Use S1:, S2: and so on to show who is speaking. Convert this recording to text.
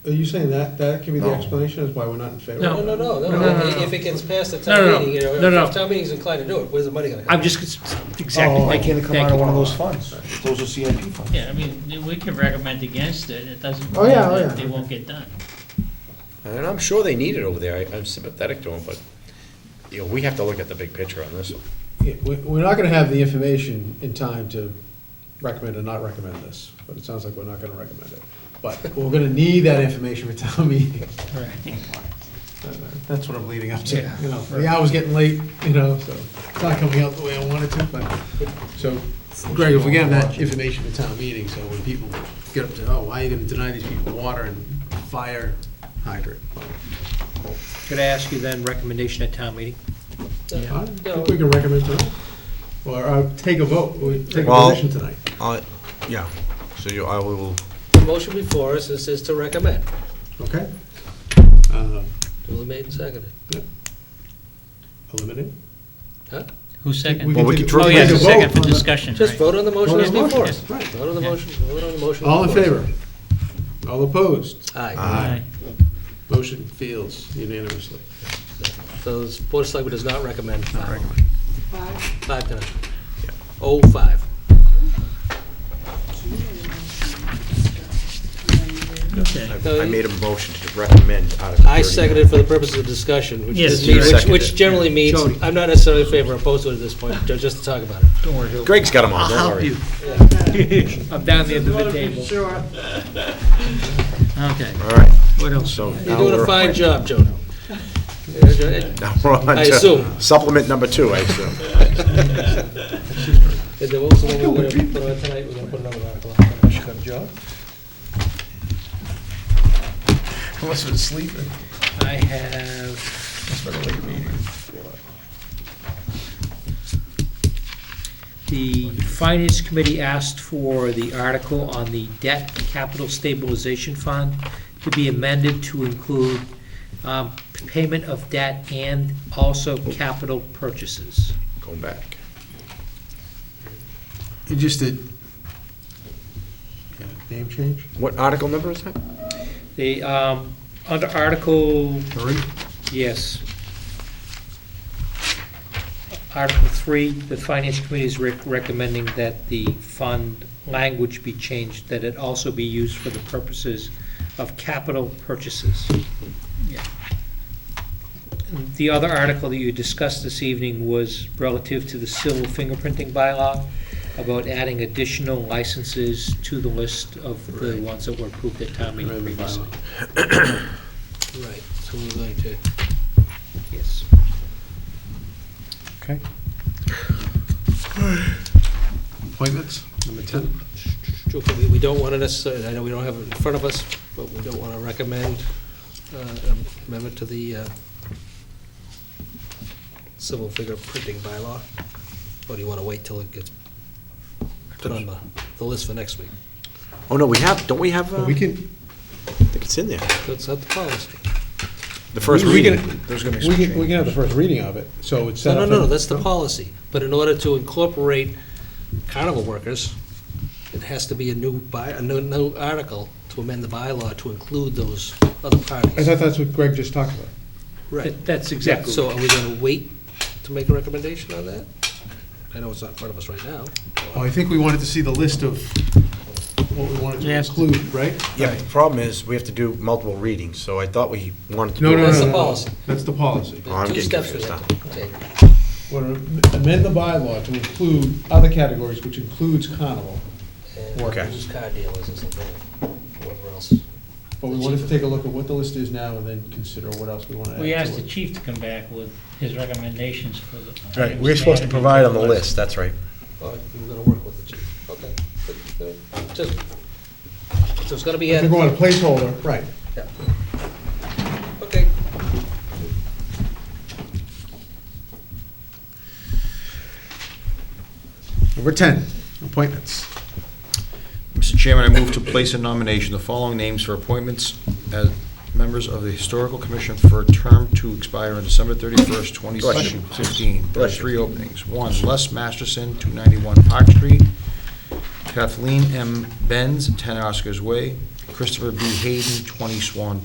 S1: Are you saying that, that could be the
S2: No.
S1: explanation as why we're not in favor?
S3: No.
S4: No, no, no,
S3: No,
S4: no,
S3: no, no,
S4: if
S3: no.
S4: if it gets past the
S3: No, no, no.
S4: town meeting, you
S3: No, no.
S4: know, if town meeting's inclined to do it, where's the money gonna come?
S3: I'm just, exactly.
S5: Oh, why can't it come
S3: Thank
S5: out of
S3: you.
S5: one of those funds?
S2: Those are CIP funds.
S6: Yeah, I mean, we can recommend against it, it doesn't,
S5: Oh,
S6: mean
S5: yeah, oh,
S6: that
S5: yeah.
S6: they won't get done.
S7: And I'm sure they need it over there, I- I'm sympathetic to them, but, you know, we have to look at the big picture on this.
S1: Yeah, we- We're not gonna have the information in time to recommend or not recommend this, but it sounds like we're not gonna recommend it. But we're gonna need that information for town meeting. That's what I'm leading up to, you know, the hour's getting late, you know, so it's not coming out the way I wanted to, but, so, Greg, if we get that information for town meeting, so when people get up to, oh, why are you gonna deny these people water and fire hydrant?
S3: Could I ask you then, recommendation at town meeting?
S1: I think we can recommend tonight, or uh, take a vote, we take a
S2: Well-
S1: position tonight.
S2: Uh, yeah, so you, I will,
S4: The motion before us is, is to recommend,
S1: Okay. Uh,
S4: duly made and seconded,
S1: Eliminate?
S4: huh?
S6: Who seconded?
S2: Well, we
S1: take-
S2: could try-
S6: Oh,
S1: take
S6: yeah,
S1: a
S6: it's a
S1: vote
S6: second for
S1: on the-
S6: discussion,
S4: Just
S6: right.
S4: vote on the motion
S1: Vote
S4: as
S1: on the
S4: before.
S1: motion, right.
S4: Vote on the motion, vote on the motion.
S1: All in
S4: before us.
S1: favor? All opposed?
S4: Aye.
S6: Aye.
S1: Motion fails unanimously.
S4: So the Board of Selectmen does not recommend five.
S8: Five,
S4: Five to none. Oh, five.
S6: Okay.
S4: No,
S7: I made a motion to recommend Article
S4: I
S7: 39.
S4: seconded for the purposes of discussion, which
S6: Yes,
S4: is,
S6: you
S4: which,
S7: seconded.
S4: which generally means,
S3: Jody.
S4: I'm not necessarily in favor or opposed to it at this point, ju- just to talk about it.
S3: Don't worry, Hill.
S7: Greg's got them on,
S3: I'll
S7: don't
S3: help
S7: worry.
S3: you. I'm down the end of the table.
S8: sure.
S6: Okay,
S7: All right,
S6: what else?
S2: so
S4: You're
S2: now
S4: doing a
S2: we're,
S4: fine job, Jody. Yeah, Jody.
S2: now we're on
S4: I
S2: to
S4: assume.
S2: supplement number two, I assume.
S4: And then what was the one we were gonna put on tonight, we're gonna put another article on.
S2: I must have been sleeping.
S3: I have,
S2: It's been a late meeting.
S3: the Finance Committee asked for the article on the Debt Capital Stabilization Fund to be amended to include um, payment of debt and also capital purchases.
S7: Going back.
S1: It just did. Name change?
S7: What article number is that?
S3: The, um, under Article
S1: Three.
S3: Yes. Article three, the Finance Committee is rec- recommending that the fund language be changed, that it also be used for the purposes of capital purchases.
S6: Yeah.
S3: The other article that you discussed this evening was relative to the civil fingerprinting bylaw, about adding additional licenses to the list of the ones that were approved at town meeting previously.
S4: Right, so we're going to,
S3: Yes.
S1: Okay. Appointments, number 10.
S4: Joe, we- we don't wanna necessarily, I know we don't have it in front of us, but we don't wanna recommend uh, an amendment to the uh, civil fingerprinting bylaw, or do you wanna wait till it gets put on the, the list for next week?
S7: Oh, no, we have, don't we have, uh,
S1: We
S7: I
S1: can,
S7: think it's in there,
S4: That's not the policy.
S7: the first
S1: We can-
S7: reading.
S2: There's gonna be
S1: we
S2: some
S1: can, we can
S2: change.
S1: have the first reading of it, so it's
S4: No,
S1: set
S4: no,
S1: up.
S4: no, no,
S1: for-
S4: that's the policy. But in order to incorporate carnival workers, it has to be a new by, a new, new article to amend the bylaw to include those other
S1: I
S4: parties.
S1: thought that's what Greg just talked about.
S4: Right.
S3: That- That's exactly.
S4: So are we gonna wait to make a recommendation on that? I know it's not in front of us right now.
S1: Oh, I think we wanted to see the list of what we wanted to
S6: Yes.
S1: include, right?
S2: Yeah, but the problem is, we have to do multiple readings, so I thought we wanted to do.
S1: No, no, no,
S4: That's
S1: no.
S4: the
S1: no.
S4: policy.
S1: That's the policy.
S2: Oh, I'm
S4: Two
S2: getting
S4: steps we
S2: confused
S4: have to take.
S1: Wanna Amend the bylaw to include other categories, which includes carnival.
S4: And
S1: Okay.
S4: who's car dealers or something, whatever else.
S1: But we wanted to take a look at what the list is now and then consider what else we want to add to it.
S6: We asked the chief to come back with his recommendations for the.
S2: Right, we're supposed to provide on the list, that's right.
S4: All right, you were gonna work with the chief, okay. But, uh, Just, so it's gonna be
S1: I
S4: added.
S1: think we want a placeholder, right.
S4: Yeah. Okay.
S1: Number 10, appointments.
S9: Mr. Chairman, I move to place in nomination the following names for appointments as members of the Historical Commission for a term to expire on December 31st,
S2: Bless you.
S9: 2015. There are
S2: Bless you.
S9: three openings. One, Les Masterson, 291 Park Street. Kathleen M. Benz, 10 Oscars Way. Christopher B. Hayden, 20 Swan